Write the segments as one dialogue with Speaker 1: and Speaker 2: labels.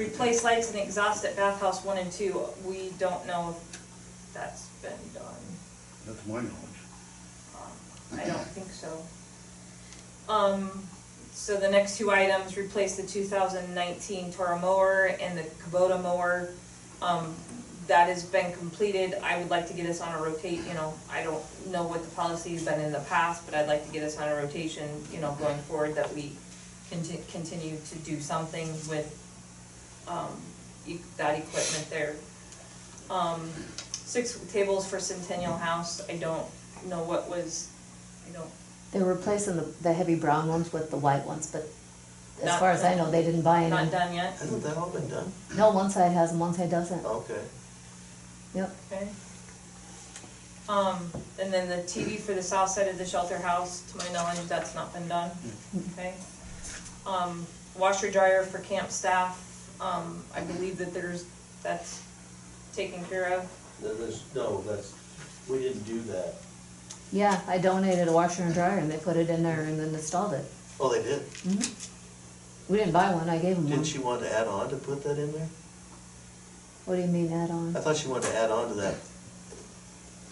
Speaker 1: replace lights and exhaust at bathhouse one and two, we don't know if that's been done.
Speaker 2: That's my knowledge.
Speaker 1: Um, I don't think so. Um, so the next two items, replace the two thousand nineteen Toro mower and the Kubota mower. Um, that has been completed, I would like to get us on a rotate, you know, I don't know what the policy's been in the past, but I'd like to get us on a rotation, you know, going forward, that we conti- continue to do something with um, e- that equipment there. Um, six tables for Centennial House, I don't know what was, I don't,
Speaker 3: They're replacing the, the heavy brown ones with the white ones, but as
Speaker 1: Not-
Speaker 3: far as I know, they didn't buy
Speaker 1: not
Speaker 3: any.
Speaker 1: done yet,
Speaker 4: Hasn't that all been done?
Speaker 3: No, one side has and one side doesn't.
Speaker 1: Oh.
Speaker 4: Okay.
Speaker 3: Yep.
Speaker 1: okay? Um, and then the TV for the south side of the shelter house, to my knowledge, that's not been done,
Speaker 3: Mm-hmm.
Speaker 1: okay? Um, washer dryer for camp staff, um, I believe that there's, that's taken care of.
Speaker 4: There- There's, no, that's, we didn't do that.
Speaker 3: Yeah, I donated a washer and dryer and they put it in there and then installed it.
Speaker 4: Oh, they did?
Speaker 1: Mm-hmm.
Speaker 3: We didn't buy one, I gave them one.
Speaker 4: Didn't she want to add on to put that in there?
Speaker 3: What do you mean add on?
Speaker 4: I thought she wanted to add on to that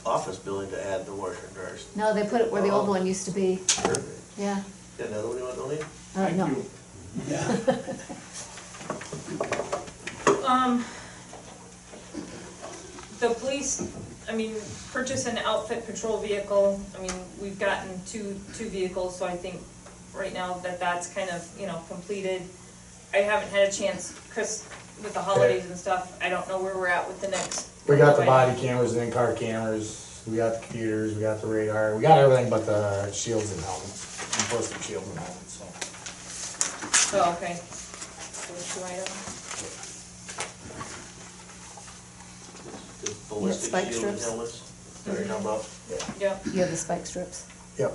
Speaker 4: office building to add the washer and dryers.
Speaker 3: No, they put it where the old
Speaker 4: Oh.
Speaker 3: one used to be,
Speaker 4: Perfect.
Speaker 3: yeah.
Speaker 4: Got another one you want to donate?
Speaker 3: Uh, no,
Speaker 1: Um, the police, I mean, purchase and outfit patrol vehicle, I mean, we've gotten two, two vehicles, so I think right now that that's kind of, you know, completed. I haven't had a chance, Chris, with the holidays and stuff, I don't know where we're at with the next.
Speaker 5: We got the body cameras, the in-car cameras, we got the computers, we got the radar, we got everything but the shields and helmets, enforcement shields and helmets, so.
Speaker 1: Oh, okay. Those two items.
Speaker 4: The ballistic
Speaker 3: spike
Speaker 4: shield and
Speaker 3: strips.
Speaker 4: helmets. Sorry, how about?
Speaker 1: Yep.
Speaker 3: you have the spike strips.
Speaker 5: Yep,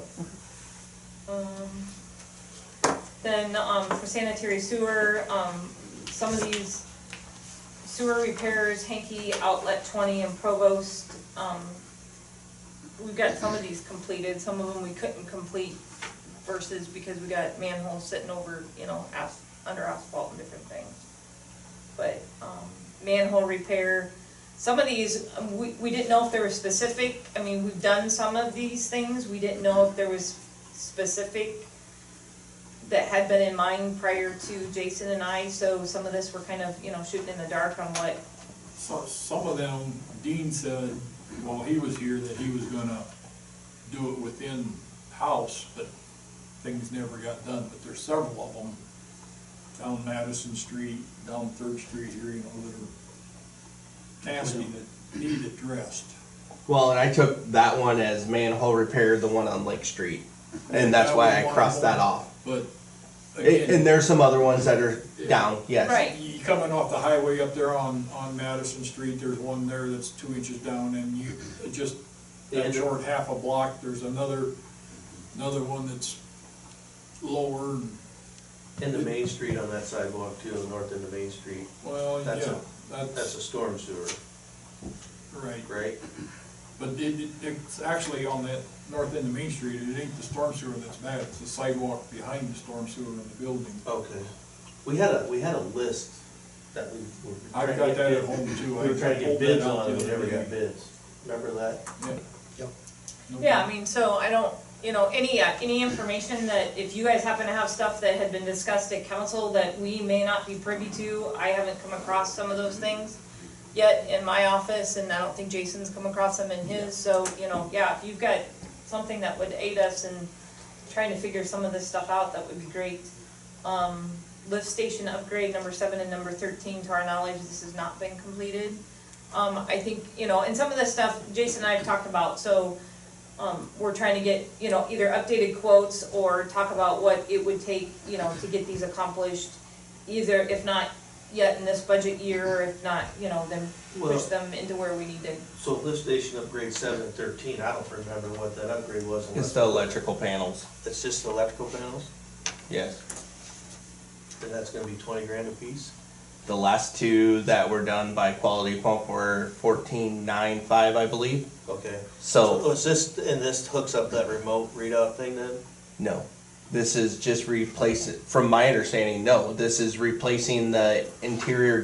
Speaker 1: Um, Then, um, for sanitary sewer, um, some of these sewer repairs, Hanky, Outlet twenty and Provost, um, we've got some of these completed, some of them we couldn't complete versus because we got manholes sitting over, you know, as, under asphalt and different things. But, um, manhole repair, some of these, um, we, we didn't know if there were specific, I mean, we've done some of these things, we didn't know if there was specific that had been in mind prior to Jason and I, so some of this we're kind of, you know, shooting in the dark on what,
Speaker 6: So, some of them, Dean said while he was here that he was gonna do it within house, but things never got done, but there's several of them down Madison Street, down Third Street here, you know, that are nasty that need addressed.
Speaker 7: Well, and I took that one as manhole repair, the one on Lake Street, and that's why I crossed that off.
Speaker 6: But
Speaker 7: A- And
Speaker 6: again,
Speaker 7: there's some other ones that are down, yes.
Speaker 1: Right.
Speaker 6: you coming off the highway up there on, on Madison Street, there's one there that's two inches down and you, just that
Speaker 4: And-
Speaker 6: short half a block, there's another, another one that's lower and,
Speaker 4: And the main street on that sidewalk too, the north end of Main Street,
Speaker 6: well, Oh, yeah,
Speaker 4: That's a- that's
Speaker 6: that's
Speaker 4: a storm sewer,
Speaker 6: right.
Speaker 4: right?
Speaker 6: But it, it, it's actually on that north end of Main Street, it ain't the storm sewer that's bad, it's the sidewalk behind the storm sewer in the building.
Speaker 4: Okay. We had a, we had a list that we were.
Speaker 6: I've
Speaker 4: trying to
Speaker 6: got
Speaker 4: get
Speaker 6: that at
Speaker 4: bid-
Speaker 6: home, too.
Speaker 4: We were
Speaker 6: I
Speaker 4: trying to get
Speaker 6: pulled that
Speaker 4: bids
Speaker 6: out
Speaker 4: on it,
Speaker 6: the
Speaker 4: we
Speaker 6: other
Speaker 4: never got
Speaker 6: day.
Speaker 4: bids. Remember that?
Speaker 6: Yep. No
Speaker 1: yeah, I mean, so I don't, you know, any, uh, any information that, if you guys happen to have stuff that had been discussed at council that we may not be privy to, I haven't come across some of those things yet in my office, and I don't think Jason's come across them in his, so, you know, yeah, if you've got something that would aid us in trying to figure some of this stuff out, that would be great. Um, lift station upgrade, number seven and number thirteen, to our knowledge, this has not been completed. Um, I think, you know, and some of this stuff Jason and I have talked about, so, um, we're trying to get, you know, either updated quotes or talk about what it would take, you know, to get these accomplished. Either if not yet in this budget year, or if not, you know, then
Speaker 4: Well-
Speaker 1: push them into where we need to.
Speaker 4: So lift station upgrade seven and thirteen, I don't remember what that upgrade was.
Speaker 7: It's
Speaker 4: unless-
Speaker 7: the electrical panels,
Speaker 4: It's just the electrical panels,
Speaker 7: yes.
Speaker 4: and that's gonna be twenty grand a piece?
Speaker 7: The last two that were done by Quality Pump were fourteen nine five, I believe.
Speaker 4: Okay.
Speaker 7: So,
Speaker 4: is this, and this hooks up that remote readout thing then?
Speaker 7: no, This is just replacing, from my understanding, no, this is replacing the interior